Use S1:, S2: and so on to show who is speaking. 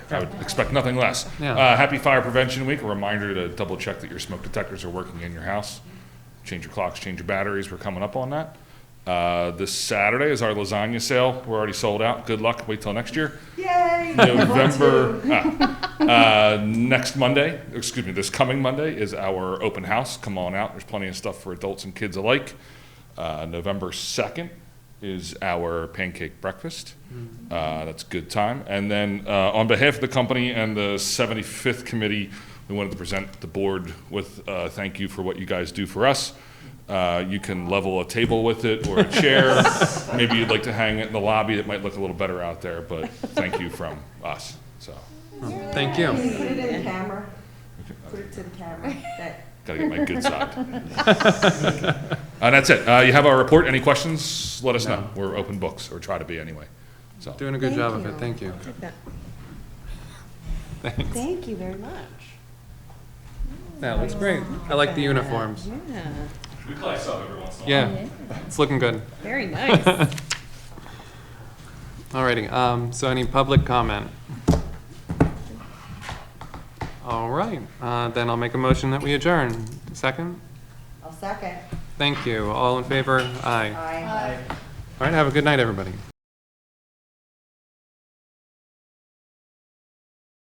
S1: I would expect nothing less.
S2: Yeah.
S1: Uh, happy Fire Prevention Week. A reminder to double check that your smoke detectors are working in your house. Change your clocks, change your batteries. We're coming up on that. Uh, this Saturday is our lasagna sale. We're already sold out. Good luck. Wait till next year.
S3: Yay!
S1: November, ah, uh, next Monday, excuse me, this coming Monday is our open house. Come on out. There's plenty of stuff for adults and kids alike. Uh, November 2nd is our pancake breakfast. Uh, that's good time. And then, uh, on behalf of the company and the 75th committee, we wanted to present the board with uh, thank you for what you guys do for us. Uh, you can level a table with it or a chair. Maybe you'd like to hang it in the lobby. It might look a little better out there, but thank you from us. So,
S2: Thank you.
S3: Put it in camera. Put it to the camera. That-
S1: gotta get my good side. and that's it. Uh, you have our report. Any questions? Let us know. We're open books, or try to be anyway. So,
S2: Doing a good
S4: Thank
S2: job of
S4: you.
S2: it, thank you.
S4: Thank you very much.
S2: That looks great. I like the uniforms.
S4: Yeah,
S1: we play sub every once in a
S2: Yeah, it's looking good.
S4: very nice.
S2: Alrighty, um, so any public comment? All right, uh, then I'll make a motion that we adjourn. Second?
S3: I'll second.
S2: Thank you. All in favor? Aye.
S3: Aye.
S2: All right, have a good night, everybody.